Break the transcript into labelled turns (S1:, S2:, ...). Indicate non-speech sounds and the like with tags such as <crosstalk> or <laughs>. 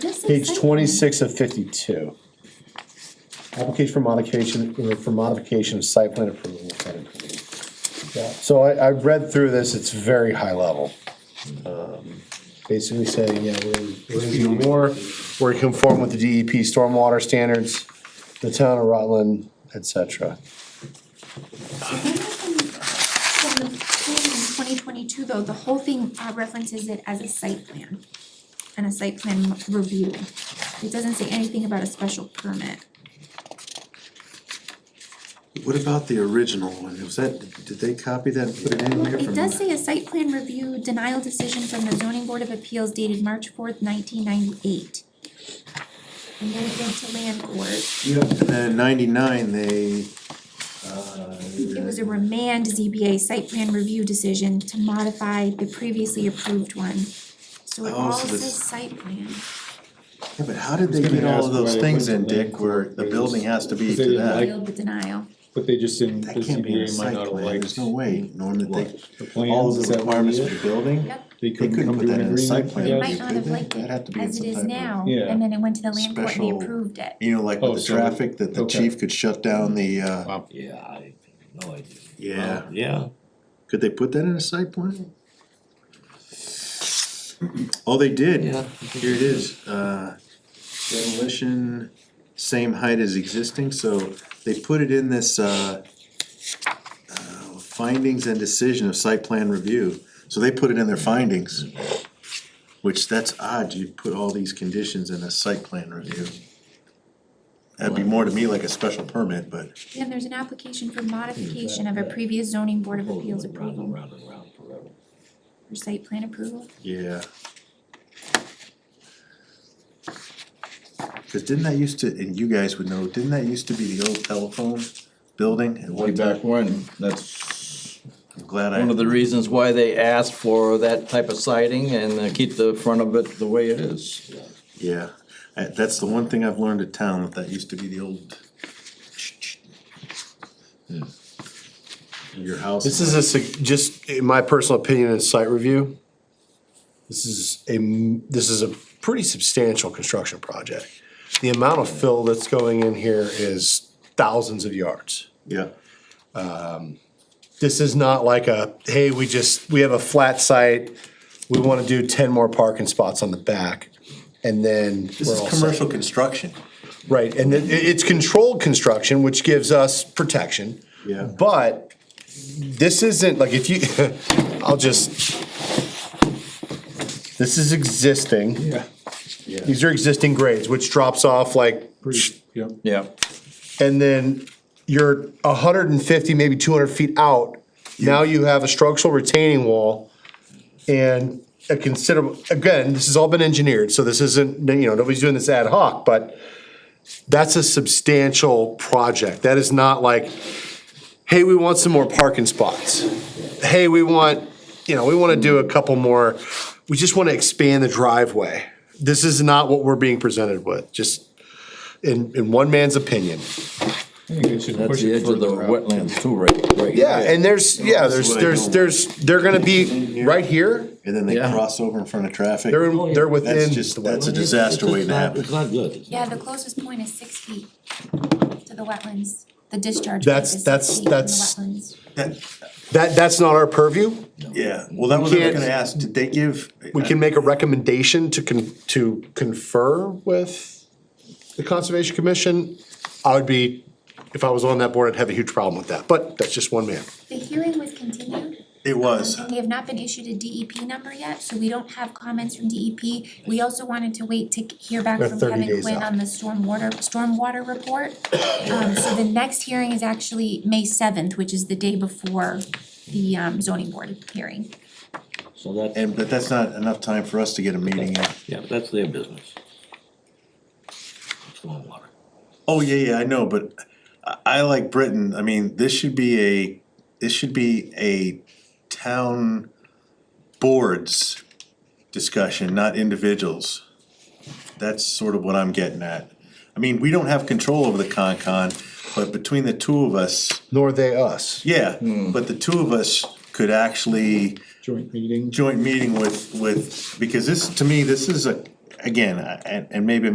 S1: Page twenty-six of fifty-two. Application for modification, uh, for modification of site plan approval. of site approval. Yeah, So I, I read through this, it's very high level. Um, Basically saying, yeah, we're, we're gonna do more, we're conform with the DEP stormwater standards, the town of Rutland, et cetera.
S2: From the plan in twenty twenty-two though, the whole thing uh, references it as a site plan and a site plan review. It doesn't say anything about a special permit.
S3: What about the original one? Was that, did they copy that and put it in
S2: Well,
S3: here
S2: it
S3: from?
S2: does say a site plan review denial decision from the zoning board of appeals dated March fourth nineteen ninety-eight. And then it went to land court,
S3: Yep, and then in ninety-nine, they, uh,
S2: it was a remand ZBA site plan review decision to modify the previously approved one. So it
S3: Oh,
S2: all
S3: so this-
S2: says site plan.
S3: yeah, but how did they
S4: gonna
S3: get all
S4: ask
S3: of those
S4: why they
S3: things
S4: put
S3: in,
S4: the
S3: Dick, where the
S4: language.
S3: building has to be
S4: They
S3: to
S4: didn't
S3: that?
S4: like-
S2: Appealed the denial.
S4: But they just didn't, the
S3: That can't be in a
S4: ZBA might
S3: site
S4: not have
S3: plan, there's
S4: liked
S3: no way, Norm,
S4: the
S3: that they, all
S4: plans,
S3: of
S4: is
S3: the
S4: that what
S3: requirements
S4: it
S3: for
S4: is?
S3: the building?
S2: Yep.
S4: They couldn't
S3: couldn't
S4: come
S3: put
S4: to
S3: that
S4: an
S3: in a site
S4: agreement,
S3: plan.
S4: yeah,
S2: might not have liked
S3: That'd have to
S2: it
S3: be in
S2: as it
S3: some
S2: is
S3: type of
S2: now,
S4: Yeah.
S2: and then it went to the land court and they
S3: special-
S2: approved it.
S3: You know, like
S4: Oh,
S3: with the
S4: so they-
S3: traffic, that the
S4: okay.
S3: chief could shut down the, uh,
S5: Yeah, I have no idea.
S3: yeah,
S5: Yeah.
S3: could they put that in a site plan? Oh, they did.
S5: Yeah.
S3: Here it is, uh, demolition, same height as existing, so they put it in this, uh, uh, findings and decision of site plan review, so they put it in their findings. Which that's odd, you put all these conditions in a site plan review. That'd be more to me like a special permit, but
S2: Then there's an application for modification of a previous zoning board of appeals
S5: Round and
S2: approval
S5: round and round forever.
S2: for site plan approval.
S3: yeah. Cause didn't that used to, and you guys would know, didn't that used to be the old telephone building at
S6: Way
S3: one time?
S6: back when, that's
S3: I'm glad I.
S6: one of the reasons why they asked for that type of siding and uh, keep the front of it the way it is.
S3: Yeah, I- that's the one thing I've learned at town, that that used to be the old. Your house.
S1: This is a, sig- just, in my personal opinion, is site review. This is a, m- this is a pretty substantial construction project. The amount of fill that's going in here is thousands of yards.
S3: Yeah,
S1: This is not like a, hey, we just, we have a flat site, we wanna do ten more parking spots on the back, and then
S3: this
S1: we're
S3: is
S1: all set.
S3: commercial construction.
S1: Right, and it, it's controlled construction, which gives us protection.
S3: Yeah.
S1: But this isn't, like, if you, <laughs> I'll just, this is existing.
S4: Yeah,
S1: These are existing grades, which drops off like,
S4: pretty, yep.
S6: Yeah,
S1: and then you're hundred and fifty, maybe two hundred feet out. Now you have a structural retaining wall and a considerable, again, this has all been engineered, so this isn't, you know, nobody's doing this ad hoc, but that's a substantial project. That is not like, hey, we want some more parking spots. Hey, we want, you know, we wanna do a couple more, we just wanna expand the driveway. This is not what we're being presented with, just in, in one man's opinion.
S4: I think they should
S6: that's
S4: push
S6: the
S4: it
S6: edge of the
S4: further out.
S6: wetlands too, right, right.
S1: Yeah, and there's, yeah, there's,
S3: what I
S1: there's,
S3: don't
S1: there's, they're gonna be right here,
S3: And then they
S6: Yeah.
S3: cross over in front of traffic.
S1: they're, in- they're within.
S3: That's just, that's a disaster waiting to happen.
S5: It's not good. it's
S2: Yeah,
S5: not
S2: the closest point is six feet to the wetlands, the discharge. point
S1: That's-
S2: is six
S1: that's-
S2: feet from
S1: that's-
S2: The wetlands.
S1: That, that's not our purview.
S3: Yeah, well, that was what I
S1: can't-
S3: was gonna ask, did they give?
S1: We can make a recommendation to con, to confer with the Conservation Commission. I would be, if I was on that board, I'd have a huge problem with that, but that's just one man.
S2: The hearing was continued,
S3: It was,
S2: and we have not been issued a DEP number yet, so we don't have comments from DEP. We also wanted to wait to hear back
S1: They're
S2: from
S1: 30
S2: Kevin
S1: days
S2: Quinn
S1: out.
S2: on the stormwater, stormwater report. Um, so the next hearing is actually May seventh, which is the day before the um zoning board hearing.
S5: good. So that,
S3: and, but that's not enough time for us to get a meeting in.
S5: yeah, that's their business. Stormwater.
S3: Oh, yeah, yeah, I know, but I, I like Britain, I mean, this should be a, this should be a town boards discussion, not individuals. That's sort of what I'm getting at. I mean, we don't have control over the Concon, but between the two of us,
S1: Nor they us.
S3: yeah, but the two of us could actually
S4: Hmm. Joint meeting.
S3: joint meeting with, with, because this, to me, this is a, again, I- and, and maybe